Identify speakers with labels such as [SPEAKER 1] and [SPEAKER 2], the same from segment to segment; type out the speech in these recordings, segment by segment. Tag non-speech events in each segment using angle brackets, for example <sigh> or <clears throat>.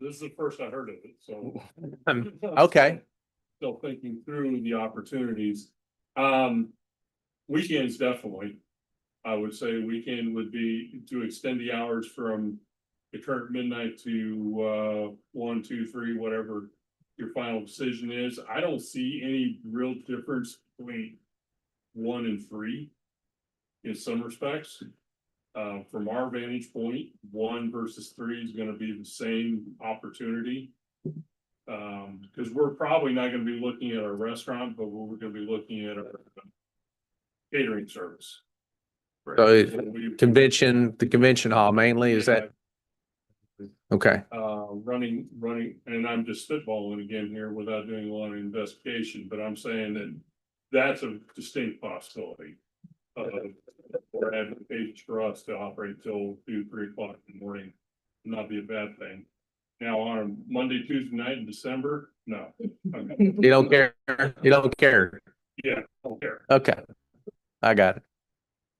[SPEAKER 1] This is the first I heard of it, so.
[SPEAKER 2] <laughs> Um, okay.
[SPEAKER 1] Still thinking through the opportunities. Um, weekends definitely. I would say weekend would be to extend the hours from the current midnight to, uh, one, two, three, whatever your final decision is. I don't see any real difference between one and three in some respects. Uh, from our vantage point, one versus three is gonna be the same opportunity. Um, because we're probably not gonna be looking at our restaurant, but we're gonna be looking at our catering service.
[SPEAKER 2] So,
[SPEAKER 1] We-
[SPEAKER 2] Convention, the convention hall mainly, is that, okay,
[SPEAKER 1] Uh, running, running, and I'm just spitballing again here without doing a lot of investigation, but I'm saying that that's a distinct possibility. Of, or advantage for us to operate till two, three o'clock in the morning, not be a bad thing. Now, on a Monday, Tuesday night in December, no. Okay,
[SPEAKER 2] you don't care, you don't care,
[SPEAKER 1] Yeah, I don't care.
[SPEAKER 2] okay. I got it,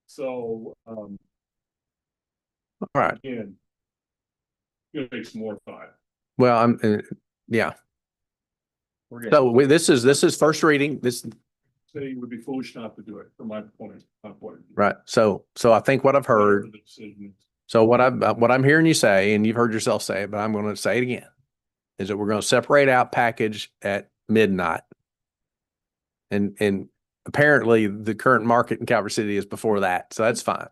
[SPEAKER 1] So, um,
[SPEAKER 2] all right,
[SPEAKER 1] again. Gonna take some more thought.
[SPEAKER 2] well, I'm, uh, yeah,
[SPEAKER 3] We're getting,
[SPEAKER 2] so we, this is, this is first reading, this,
[SPEAKER 1] City would be foolish not to do it from my point, my point.
[SPEAKER 2] right, so, so I think what I've heard,
[SPEAKER 1] Whatever the decision is.
[SPEAKER 2] so what I'm, what I'm hearing you say, and you've heard yourself say, it, but I'm gonna say it again. Is that we're gonna separate out package at midnight. And, and apparently the current market in Calvert City is before that, so that's fine.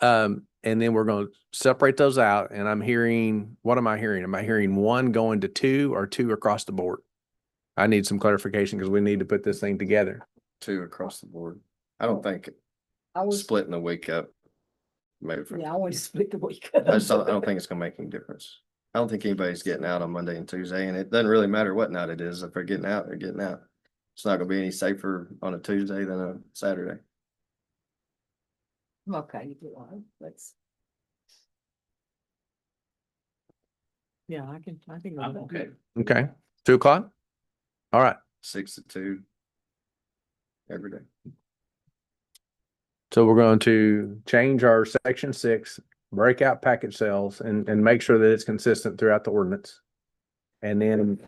[SPEAKER 2] Um, and then we're gonna separate those out and I'm hearing, what am I hearing? Am I hearing one going to two or two across the board? I need some clarification because we need to put this thing together.
[SPEAKER 3] two across the board. I don't think
[SPEAKER 4] I was,
[SPEAKER 3] splitting the week up. Maybe, for-
[SPEAKER 4] yeah, I want to split the week. Oh,
[SPEAKER 3] I just
[SPEAKER 4] <laughs>
[SPEAKER 3] don't, I don't think it's gonna make any difference. I don't think anybody's getting out on Monday and Tuesday, and it doesn't really matter what night it is. If they're getting out, they're getting out. It's not gonna be any safer on a Tuesday than a Saturday.
[SPEAKER 4] Okay, you get one, let's. Yeah, I can, I think. I'm okay.
[SPEAKER 2] Okay, two o'clock? All right,
[SPEAKER 3] Six to two. Every day.
[SPEAKER 2] So we're going to change our section six, break out package sales and, and make sure that it's consistent throughout the ordinance. And then,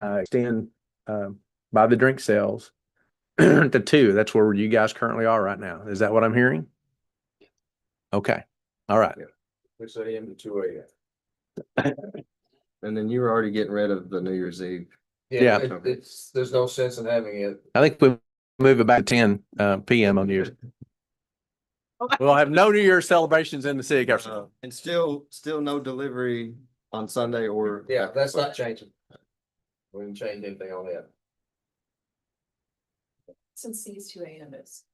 [SPEAKER 2] uh, extend, uh, by the drink sales <clears throat> to two. That's where you guys currently are right now. Is that what I'm hearing? Okay, all right.
[SPEAKER 3] Six AM to two AM. <laughs> And then you were already getting rid of the New Year's Eve.
[SPEAKER 2] Yeah.
[SPEAKER 5] it- It's, there's no sense in having it.
[SPEAKER 2] I think we move it back to ten, uh, PM on New Year's. We'll have no New Year's celebrations in the city. of Calvert City.
[SPEAKER 3] And still, still no delivery on Sunday or.
[SPEAKER 5] Yeah, that's not changing. We didn't change anything on that.
[SPEAKER 6] Since these two items.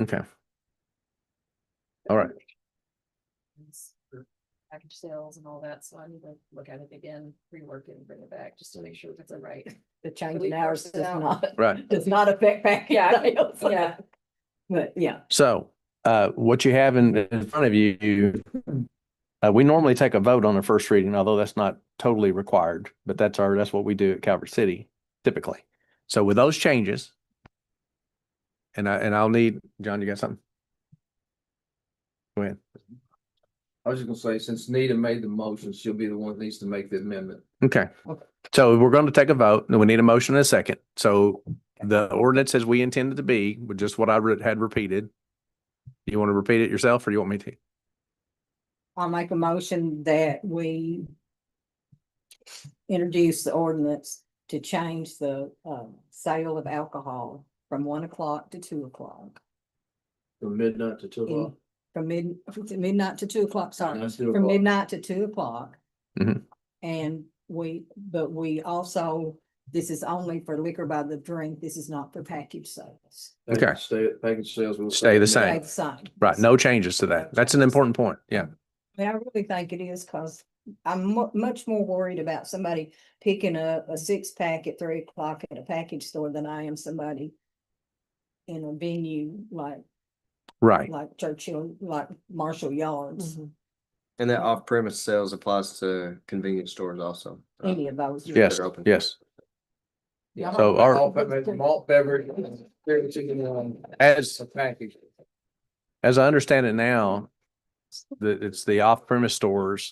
[SPEAKER 2] Okay, All right.
[SPEAKER 6] Package sales and all that, so I need to look at it again, rework it and bring it back, just to make sure that's right.
[SPEAKER 4] The
[SPEAKER 6] But
[SPEAKER 4] change
[SPEAKER 6] we
[SPEAKER 4] in hours
[SPEAKER 6] worked
[SPEAKER 4] does
[SPEAKER 6] it out.
[SPEAKER 4] not, <laughs>
[SPEAKER 2] right.
[SPEAKER 4] does not affect package
[SPEAKER 6] Yeah,
[SPEAKER 4] sales.
[SPEAKER 6] yeah.
[SPEAKER 4] But yeah,
[SPEAKER 2] So, uh, what you have in, in front of you, uh, we normally take a vote on the first reading, although that's not totally required, but that's our, that's what we do at Calvert City typically. So with those changes, and I, and I'll need, John, you got something? Go ahead.
[SPEAKER 5] I was just gonna say, since Nita made the motion, she'll be the one that needs to make the amendment.
[SPEAKER 2] Okay.
[SPEAKER 5] Okay.
[SPEAKER 2] So we're going to take a vote and we need a motion and a second. So the ordinance as we intended to be, with just what I re- had repeated. You want to repeat it yourself or you want me to?
[SPEAKER 4] I'll make a motion that we introduce the ordinance to change the, um, sale of alcohol from one o'clock to two o'clock.
[SPEAKER 5] From midnight to two o'clock.
[SPEAKER 4] From mid, midnight to two o'clock, sorry.
[SPEAKER 5] That's two
[SPEAKER 4] from
[SPEAKER 5] o'clock.
[SPEAKER 4] midnight to two o'clock.
[SPEAKER 2] Mhm.
[SPEAKER 4] And we, but we also, this is only for liquor by the drink, this is not for package sales.
[SPEAKER 2] Okay.
[SPEAKER 5] Package Stay, package sales will.
[SPEAKER 2] Stay the same.
[SPEAKER 4] Stay the same.
[SPEAKER 2] Right. No changes to that. That's an important point. Yeah.
[SPEAKER 4] I mean, I really think it is, cause I'm mu- much more worried about somebody picking up a six pack at three o'clock at a package store than I am somebody in a venue like,
[SPEAKER 2] Right.
[SPEAKER 4] like Churchill, like Marshall Yards,
[SPEAKER 3] And that off-premise sales applies to convenience stores also. uh,
[SPEAKER 4] any of those.
[SPEAKER 3] that
[SPEAKER 2] Yes,
[SPEAKER 3] are open.
[SPEAKER 2] yes.
[SPEAKER 5] Yeah.
[SPEAKER 2] So our-
[SPEAKER 5] Malt beverage- Malt beverage, beer, chicken, um,
[SPEAKER 2] As,
[SPEAKER 5] a package.
[SPEAKER 2] as I understand it now, The, it's the off premise stores